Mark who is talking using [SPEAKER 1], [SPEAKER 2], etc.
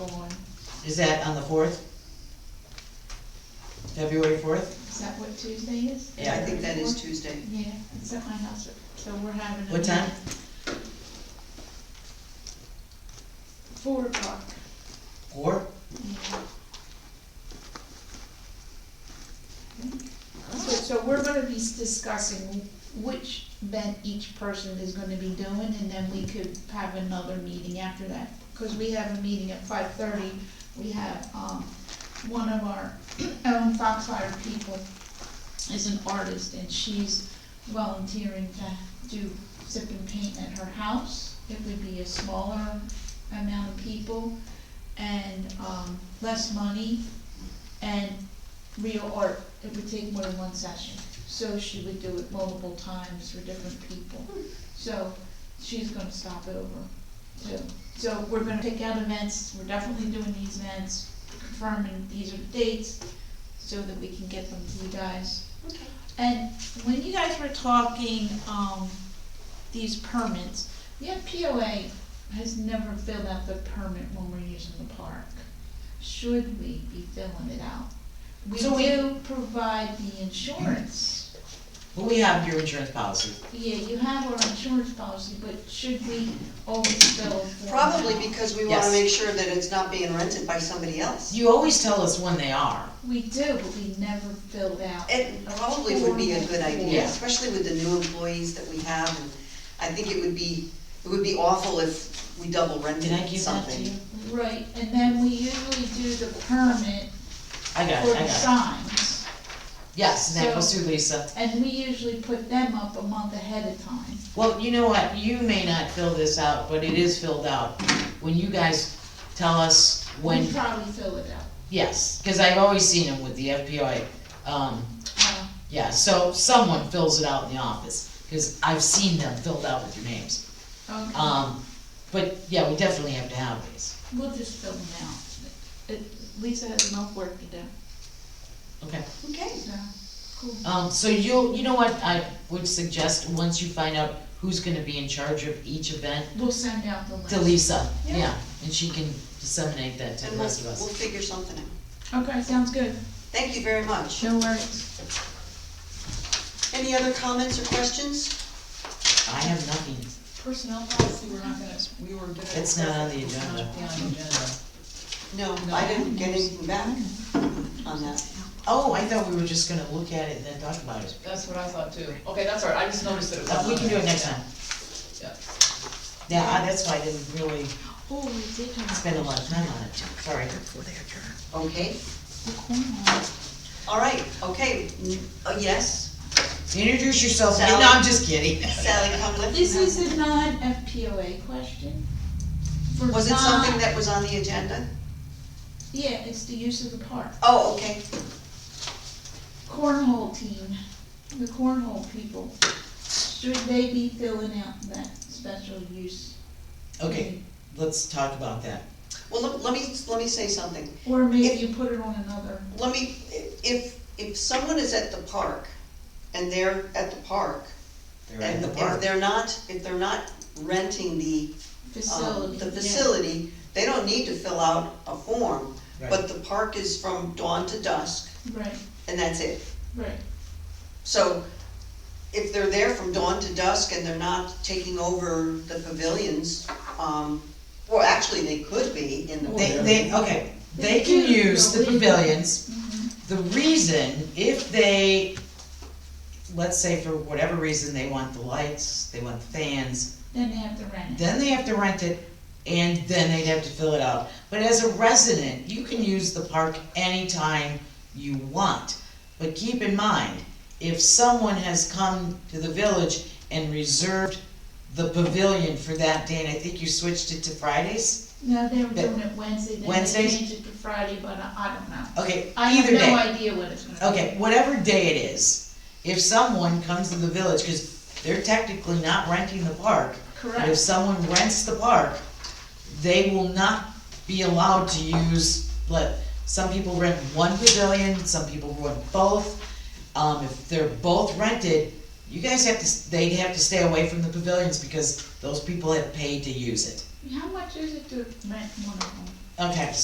[SPEAKER 1] Is that on the fourth? February fourth?
[SPEAKER 2] Is that what Tuesday is?
[SPEAKER 1] Yeah.
[SPEAKER 3] I think that is Tuesday.
[SPEAKER 2] Yeah, it's at my house, so we're having. a
[SPEAKER 1] What time?
[SPEAKER 2] meeting. Four o'clock,
[SPEAKER 1] Four?
[SPEAKER 2] yeah. So, so we're gonna be discussing which event each person is gonna be doing, and then we could have another meeting after that. Cause we have a meeting at five thirty, we have, um, one of our own Foxfire people is an artist, and she's volunteering to do sip and paint at her house. It would be a smaller amount of people, and, um, less money, and real art, it would take more than one session. So she would do it multiple times for different people. So she's gonna stop over too. So we're gonna pick out events, we're definitely doing these events, confirming these are the dates, so that we can get them to you guys. And when you guys were talking, um, these permits, yeah, POA has never filled out the permit when we're using the park. Should we be filling it out? We
[SPEAKER 1] So we-
[SPEAKER 2] do provide the insurance.
[SPEAKER 1] Well, we have your insurance policy.
[SPEAKER 2] Yeah, you have our insurance policy, but should we always fill a form
[SPEAKER 3] Probably
[SPEAKER 2] out?
[SPEAKER 3] because we wanna
[SPEAKER 1] Yes.
[SPEAKER 3] make sure that it's not being rented by somebody else.
[SPEAKER 1] You always tell us when they are.
[SPEAKER 2] We do, but we never filled out.
[SPEAKER 3] It probably would be a good idea,
[SPEAKER 1] Yeah.
[SPEAKER 3] especially with the new employees that we have, and I think it would be, it would be awful if we double rented
[SPEAKER 1] Did I give that to you?
[SPEAKER 3] something.
[SPEAKER 2] Right, and then we usually do the permit
[SPEAKER 1] I got
[SPEAKER 2] for
[SPEAKER 1] it, I
[SPEAKER 2] the
[SPEAKER 1] got it.
[SPEAKER 2] signs,
[SPEAKER 1] Yes, and that goes through Lisa.
[SPEAKER 2] and we usually put them up a month ahead of time.
[SPEAKER 1] Well, you know what, you may not fill this out, but it is filled out. When you guys tell us when,
[SPEAKER 2] We probably fill it out.
[SPEAKER 1] yes, cause I've always seen them with the FPI. Um,
[SPEAKER 2] Uh,
[SPEAKER 1] yeah, so someone fills it out in the office, cause I've seen them filled out with your names.
[SPEAKER 2] Okay,
[SPEAKER 1] Um, but yeah, we definitely have to have these.
[SPEAKER 2] we'll just fill them out. It- Lisa has enough work to do,
[SPEAKER 1] Okay,
[SPEAKER 3] Okay.
[SPEAKER 2] so, cool.
[SPEAKER 1] um, so you'll, you know what, I would suggest, once you find out who's gonna be in charge of each event,
[SPEAKER 2] We'll send out the list.
[SPEAKER 1] to Lisa,
[SPEAKER 3] Yeah.
[SPEAKER 1] yeah, and she can disseminate that to
[SPEAKER 3] And
[SPEAKER 1] the
[SPEAKER 3] we'll, we'll
[SPEAKER 1] rest of us.
[SPEAKER 3] figure something out.
[SPEAKER 2] Okay, sounds good.
[SPEAKER 3] Thank you very much.
[SPEAKER 2] No worries.
[SPEAKER 3] Any other comments or questions?
[SPEAKER 1] I have nothing.
[SPEAKER 4] Personnel policy, we're not gonna, we were gonna.
[SPEAKER 1] It's not on the
[SPEAKER 4] It's not
[SPEAKER 1] agenda.
[SPEAKER 4] on the agenda.
[SPEAKER 3] No,
[SPEAKER 4] No.
[SPEAKER 3] I didn't get anything back on that.
[SPEAKER 1] Oh, I thought we were just gonna look at it and then talk about it.
[SPEAKER 4] That's what I thought too. Okay, that's all right, I just noticed that it was.
[SPEAKER 1] Uh, We can do it next time.
[SPEAKER 4] Yeah.
[SPEAKER 1] Yeah, I- that's why I didn't really
[SPEAKER 2] Oh, we did have.
[SPEAKER 1] spend a lot of time on it, sorry.
[SPEAKER 3] Okay,
[SPEAKER 2] The cornhole.
[SPEAKER 3] all right, okay, Mm, uh, yes,
[SPEAKER 1] Introduce yourself, no,
[SPEAKER 3] Sally.
[SPEAKER 1] I'm just kidding.
[SPEAKER 3] Sally Cunliffe.
[SPEAKER 2] This is a non-FPOA question. For
[SPEAKER 3] Was it
[SPEAKER 2] non-
[SPEAKER 3] something that was on the agenda?
[SPEAKER 2] Yeah, it's the use of the park.
[SPEAKER 3] Oh, okay.
[SPEAKER 2] Cornhole team, the cornhole people, should they be filling out that special use?
[SPEAKER 1] Okay, let's talk about that.
[SPEAKER 3] Well, let- let me, let me say something.
[SPEAKER 2] Or maybe you put it on another,
[SPEAKER 3] Let me, if, if someone is at the park and they're at the park,
[SPEAKER 1] They're in
[SPEAKER 3] and
[SPEAKER 1] the
[SPEAKER 3] if
[SPEAKER 1] park.
[SPEAKER 3] they're not, if they're not renting the, um,
[SPEAKER 2] facility.
[SPEAKER 3] the facility, they don't need to fill out a form.
[SPEAKER 1] Right.
[SPEAKER 3] But the park is from dawn to dusk,
[SPEAKER 2] Right,
[SPEAKER 3] and that's it.
[SPEAKER 2] right,
[SPEAKER 3] So if they're there from dawn to dusk and they're not taking over the pavilions, um, well, actually, they could be in the.
[SPEAKER 1] They,
[SPEAKER 3] pavilion.
[SPEAKER 1] they, okay, they can use the pavilions. The reason, if they, let's say for whatever reason, they want the lights, they want the fans,
[SPEAKER 2] then they have to rent it.
[SPEAKER 1] then they have to rent it, and then they'd have to fill it out. But as a resident, you can use the park anytime you want. But keep in mind, if someone has come to the village and reserved the pavilion for that day, and I think you switched it to Fridays?
[SPEAKER 2] No, they were doing it Wednesday, then they
[SPEAKER 1] Wednesdays?
[SPEAKER 2] changed it to Friday, but I I don't know.
[SPEAKER 1] Okay,
[SPEAKER 2] I have
[SPEAKER 1] either
[SPEAKER 2] no
[SPEAKER 1] day.
[SPEAKER 2] idea what it's gonna be.
[SPEAKER 1] Okay, whatever day it is, if someone comes to the village, cause they're technically not renting the park, But if
[SPEAKER 2] Correct,
[SPEAKER 1] someone rents the park, they will not be allowed to use, let, some people rent one pavilion, some people rent both. Um, if they're both rented, you guys have to, they'd have to stay away from the pavilions because those people have paid to use it.
[SPEAKER 2] how much is it to rent one of them?
[SPEAKER 1] Okay,